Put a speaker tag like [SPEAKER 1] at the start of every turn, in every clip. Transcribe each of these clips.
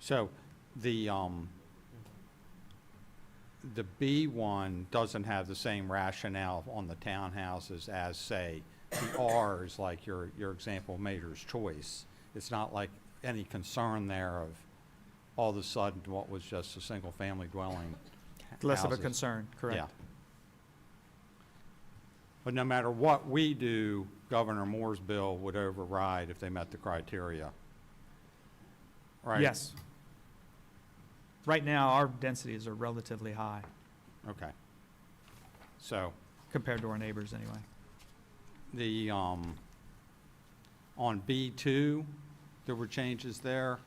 [SPEAKER 1] So the, um, the B one doesn't have the same rationale on the townhouses as, say, the R's, like your, your example, Mater's Choice. It's not like any concern there of all of a sudden what was just a single-family dwelling.
[SPEAKER 2] Less of a
[SPEAKER 1] houses.
[SPEAKER 2] concern,
[SPEAKER 1] Yeah.
[SPEAKER 2] correct?
[SPEAKER 1] But no matter what we do, Governor Moore's bill would override if they met the criteria. Right?
[SPEAKER 2] Yes. Right now, our densities are relatively high
[SPEAKER 1] Okay. So
[SPEAKER 2] compared to our neighbors anyway.
[SPEAKER 1] the, um, on B2, there were changes there.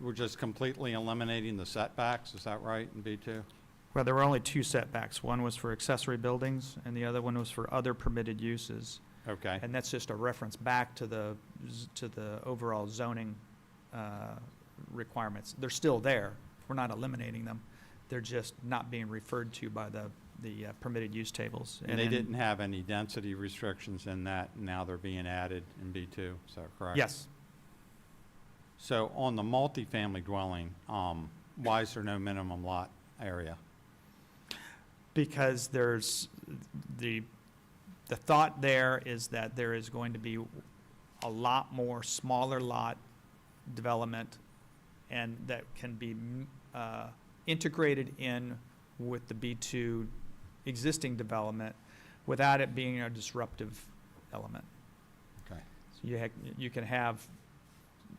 [SPEAKER 1] We're just completely eliminating the setbacks, is that right, in B2?
[SPEAKER 2] Well, there were only two setbacks. One was for accessory buildings and the other one was for other permitted uses.
[SPEAKER 1] Okay,
[SPEAKER 2] And that's just a reference back to the, z- to the overall zoning uh, requirements. They're still there. We're not eliminating them. They're just not being referred to by the, the uh, permitted use tables.
[SPEAKER 1] and they
[SPEAKER 2] in-
[SPEAKER 1] didn't have any density restrictions in that, and now they're being added in B2, is that correct?
[SPEAKER 2] Yes.
[SPEAKER 1] So on the multifamily dwelling, um, why is there no minimum lot area?
[SPEAKER 2] because there's the the thought there is that there is going to be a lot more smaller lot development and that can be mm, uh, integrated in with the B2 existing development without it being a disruptive element.
[SPEAKER 1] Okay.
[SPEAKER 2] So you, ha- you can have,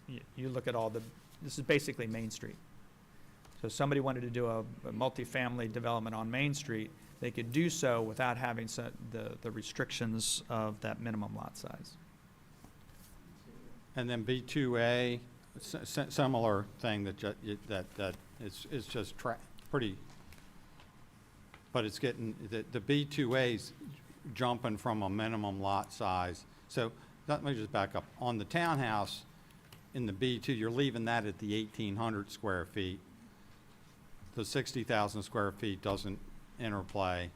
[SPEAKER 2] you, you look at all the, this is basically Main Street. So if somebody wanted to do a, a multifamily development on Main Street, they could do so without having so- the, the restrictions of that minimum lot size.
[SPEAKER 1] And then B2A, s- s- similar thing that, ju- it- that, that, it's, it's just tra, pretty, but it's getting, the, the B2A's jumping from a minimum lot size. So, let me just back up. On the townhouse in the B2, you're leaving that at the 1,800 square feet. The 60,000 square feet doesn't interplay.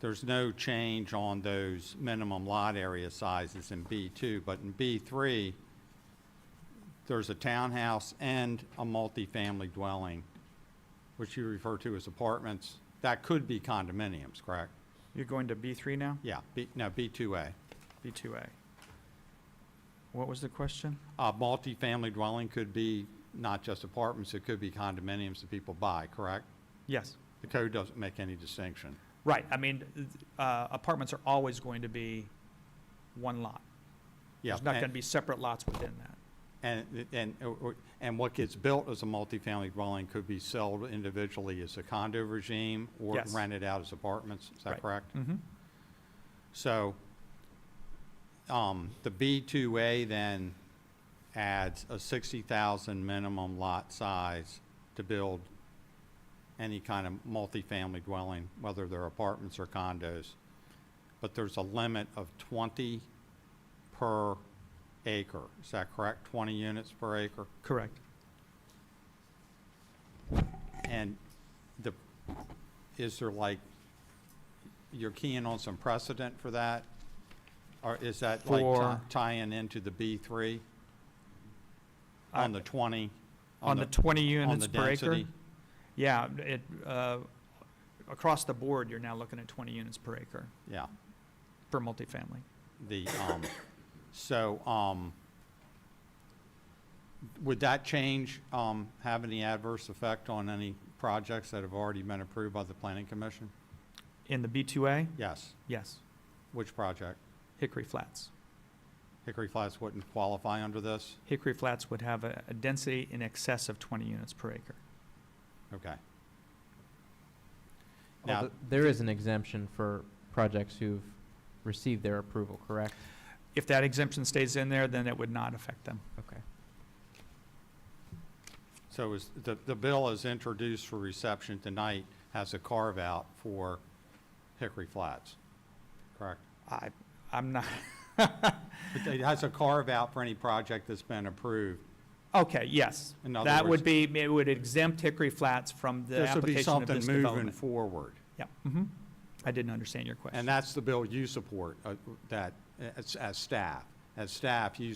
[SPEAKER 1] There's no change on those minimum lot area sizes in B2, but in B3, there's a townhouse and a multifamily dwelling, which you refer to as apartments. That could be condominiums, correct?
[SPEAKER 2] You're going to B3 now,
[SPEAKER 1] Yeah, B, no, B2A.
[SPEAKER 2] B2A. What was the question?
[SPEAKER 1] A multifamily dwelling could be not just apartments, it could be condominiums that people buy, correct?
[SPEAKER 2] Yes.
[SPEAKER 1] The code doesn't make any distinction.
[SPEAKER 2] Right, I mean, uh, apartments are always going to be one lot.
[SPEAKER 1] Yeah,
[SPEAKER 2] There's not
[SPEAKER 1] and-
[SPEAKER 2] going to be separate lots within that.
[SPEAKER 1] And, and, or- or- and what gets built as a multifamily dwelling could be sold individually as a condo regime or
[SPEAKER 2] Yes.
[SPEAKER 1] rented out as apartments, is that
[SPEAKER 2] Right.
[SPEAKER 1] correct?
[SPEAKER 2] Mm-hmm.
[SPEAKER 1] So, um, the B2A then adds a 60,000 minimum lot size to build any kind of multifamily dwelling, whether they're apartments or condos. But there's a limit of 20 per acre, is that correct? 20 units per acre?
[SPEAKER 2] Correct.
[SPEAKER 1] And the, is there like, you're keying on some precedent for that? Or is that like
[SPEAKER 2] For-
[SPEAKER 1] ti- tying into the B3
[SPEAKER 2] I-
[SPEAKER 1] on the 20?
[SPEAKER 2] Uh, On the 20
[SPEAKER 1] on
[SPEAKER 2] units
[SPEAKER 1] the
[SPEAKER 2] per acre?
[SPEAKER 1] density?
[SPEAKER 2] Yeah, it, uh, across the board, you're now looking at 20 units per acre
[SPEAKER 1] Yeah,
[SPEAKER 2] for multifamily.
[SPEAKER 1] the, um, so, um, would that change, um, have any adverse effect on any projects that have already been approved by the planning commission?
[SPEAKER 2] In the B2A,
[SPEAKER 1] Yes,
[SPEAKER 2] yes,
[SPEAKER 1] which project?
[SPEAKER 2] Hickory Flats.
[SPEAKER 1] Hickory Flats wouldn't qualify under this?
[SPEAKER 2] Hickory Flats would have a a density in excess of 20 units per acre.
[SPEAKER 1] Okay. Now-
[SPEAKER 3] Although there is an exemption for projects who've received their approval, correct?
[SPEAKER 2] If that exemption stays in there, then it would not affect them.
[SPEAKER 3] Okay.
[SPEAKER 1] So is, the, the bill is introduced for reception tonight, has a carve-out for Hickory Flats, correct?
[SPEAKER 2] I, I'm not,
[SPEAKER 1] It it has a carve-out for any project that's been approved.
[SPEAKER 2] okay, yes.
[SPEAKER 1] In other
[SPEAKER 2] That
[SPEAKER 1] words-
[SPEAKER 2] would be, it would exempt Hickory Flats from the
[SPEAKER 1] This would be
[SPEAKER 2] application of
[SPEAKER 1] something
[SPEAKER 2] this
[SPEAKER 1] moving
[SPEAKER 2] development.
[SPEAKER 1] forward.
[SPEAKER 2] Yeah, hmm I didn't understand your question.
[SPEAKER 1] uh, And that's the bill you support, uh, that, as, as staff. As staff, you